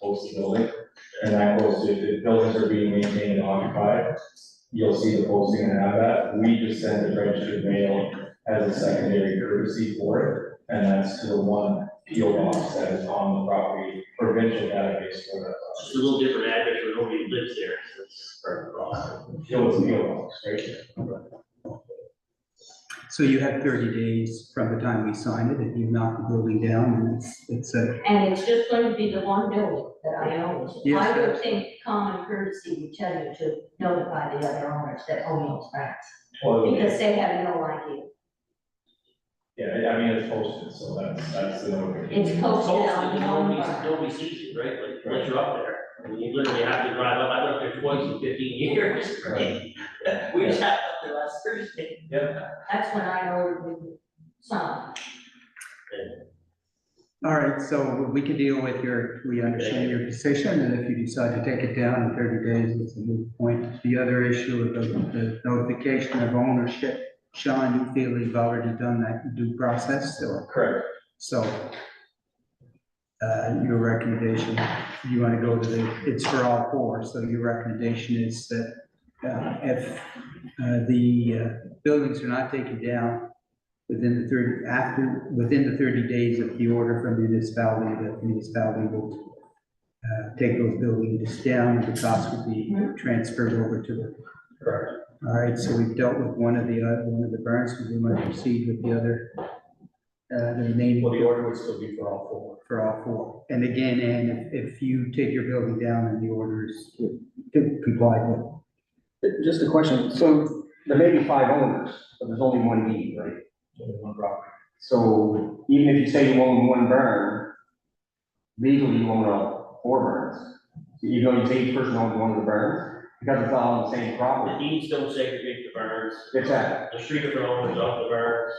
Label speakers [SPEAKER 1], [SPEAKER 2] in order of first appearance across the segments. [SPEAKER 1] host the building. And that goes, if the buildings are being maintained and occupied, you'll see the posting and have that. We just send the registered mail as a secondary courtesy for it. And that's to the one PO box that is on the property, provincial database for that.
[SPEAKER 2] It's just a little different address where nobody lives there, so it's part of the problem.
[SPEAKER 1] PO is PO box, right?
[SPEAKER 3] So you have thirty days from the time we sign it, and you knock the building down, and it's, it's a,
[SPEAKER 4] And it's just going to be the one building that I own.
[SPEAKER 3] Yes,
[SPEAKER 4] I would
[SPEAKER 3] that's-
[SPEAKER 4] think common courtesy would tell you to notify the other owners that own those racks,
[SPEAKER 1] Well,
[SPEAKER 4] because they have no idea.
[SPEAKER 1] yeah, I mean, it's posted, so that's, that's the notification.
[SPEAKER 4] It's
[SPEAKER 2] It's
[SPEAKER 4] Mm-hmm. posted
[SPEAKER 2] hosted,
[SPEAKER 4] on
[SPEAKER 2] but
[SPEAKER 4] the
[SPEAKER 2] nobody,
[SPEAKER 4] own
[SPEAKER 2] nobody sees it, right? Like, once you're up there, I mean, you literally have to drive up, I lived there twice in fifteen years, right? We just had it up there last Thursday.
[SPEAKER 1] Yeah.
[SPEAKER 4] That's when I ordered the sign.
[SPEAKER 3] all right, so we can deal with your, we understand your position, and if you decide to take it down in thirty days, it's a moot point. The other issue of the, the notification of ownership, Sean, you feel you've already done that due process, or?
[SPEAKER 1] Correct.
[SPEAKER 3] So uh, your recommendation, you want to go to the, it's for all four, so your recommendation is that uh, if uh, the uh, buildings are not taken down within the thirty, after, within the thirty days of the order from the municipality, the municipality will uh, take those buildings down, and the cost would be transferred over to the.
[SPEAKER 1] Correct.
[SPEAKER 3] All right, so we've dealt with one of the, uh, one of the burns, we want to proceed with the other, uh, the remaining
[SPEAKER 1] Well, the order would still be for all four.
[SPEAKER 3] for all four. And again, Ann, if, if you take your building down and the orders complied with.
[SPEAKER 5] Just a question, so there may be five owners, but there's only one deed, right? Only one property. So even if you say you own one burn, legally you own all four burns. So even though you say each person owns one of the burns, because it's all on the same
[SPEAKER 2] The
[SPEAKER 5] property.
[SPEAKER 2] deeds don't segregate the burns,
[SPEAKER 5] Exactly.
[SPEAKER 2] the street of owners off the burns.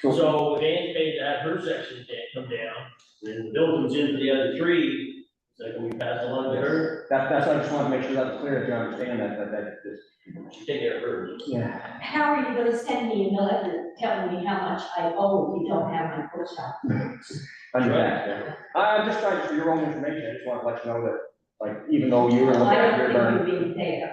[SPEAKER 5] So
[SPEAKER 2] So if Ann paid that, her section can't come down, then the bill comes in for the other three, so can we pass along to her?
[SPEAKER 5] that, that's, why I just want to make sure that's clear, if you understand that, that, that, this.
[SPEAKER 2] She take care of hers.
[SPEAKER 5] Yeah.
[SPEAKER 4] How are you gonna send me a letter telling me how much I owe if you don't have my post office?
[SPEAKER 5] Understand. I'm just trying, for your own information, I just want to let you know that, like, even though you were looking
[SPEAKER 4] I
[SPEAKER 5] at your burn,
[SPEAKER 4] don't think you're being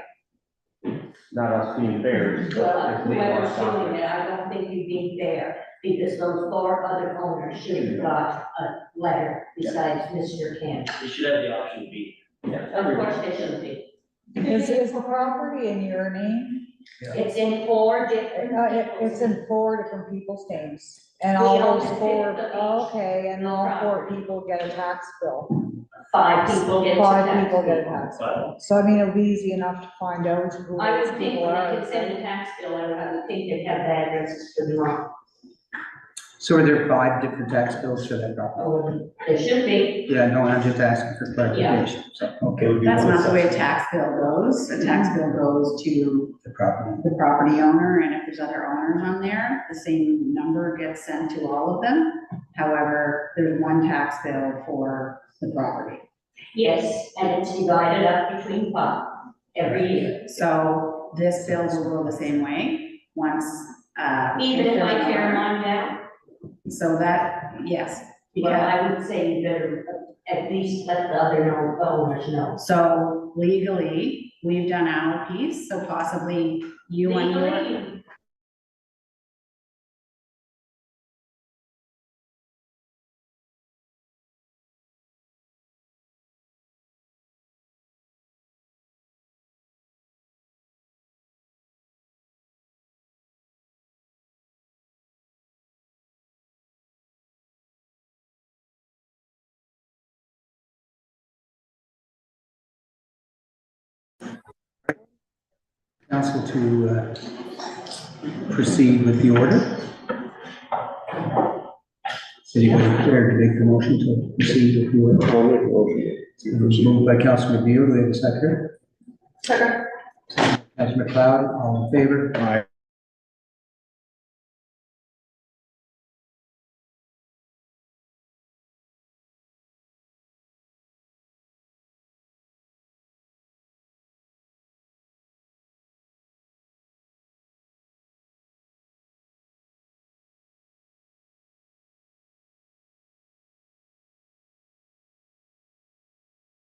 [SPEAKER 4] fair.
[SPEAKER 5] not us being fair. it's-
[SPEAKER 4] Well,
[SPEAKER 5] it's legal or
[SPEAKER 4] whoever's
[SPEAKER 5] something.
[SPEAKER 4] doing it, I don't think you're being fair, because those four other owners should have got a letter besides Mr. Cantor.
[SPEAKER 2] They should have the option to be.
[SPEAKER 4] Of course they should be.
[SPEAKER 6] Is, is the property in your name?
[SPEAKER 4] It's in four different.
[SPEAKER 6] No, it, Uh, it's in four different people's names, and all
[SPEAKER 4] We own
[SPEAKER 6] those
[SPEAKER 4] the
[SPEAKER 6] four,
[SPEAKER 4] fifth of each
[SPEAKER 6] okay, and all four people get a tax bill.
[SPEAKER 4] Five people get to
[SPEAKER 6] Five
[SPEAKER 4] tax
[SPEAKER 6] people get a
[SPEAKER 4] bill.
[SPEAKER 6] tax bill, so I mean, it'll be easy enough to find out who
[SPEAKER 4] I
[SPEAKER 6] those
[SPEAKER 4] would think
[SPEAKER 6] people
[SPEAKER 4] when they
[SPEAKER 6] are.
[SPEAKER 4] could send a tax bill, I would- I would think they'd have the addresses for the wrong,
[SPEAKER 3] So are there five different tax bills for that property?
[SPEAKER 4] or Oh, they should be.
[SPEAKER 3] Yeah, no, I'm just asking for clarification, so, okay,
[SPEAKER 7] That's not the way a tax bill goes. A tax bill goes to
[SPEAKER 3] the property.
[SPEAKER 7] the property owner, and if there's other owners on there, the same number gets sent to all of them. However, there's one tax bill for the property.
[SPEAKER 4] Yes, and it's divided up between five every year.
[SPEAKER 7] So this bill will go the same way, once, uh.
[SPEAKER 4] Even if I
[SPEAKER 7] there's an
[SPEAKER 4] tear
[SPEAKER 7] owner.
[SPEAKER 4] mine down,
[SPEAKER 7] So that, yes,
[SPEAKER 4] well,
[SPEAKER 7] because,
[SPEAKER 4] I would say you better at least let the other owners know.
[SPEAKER 7] so legally, we've done our piece, so possibly you and your.
[SPEAKER 4] Legally,
[SPEAKER 3] Council to uh, proceed with the order. City Clerk, to make the motion to proceed with the order. Moved by Councilman Beal, do we have a second? Second. Councilman McLeod, all in favor?
[SPEAKER 1] Aye.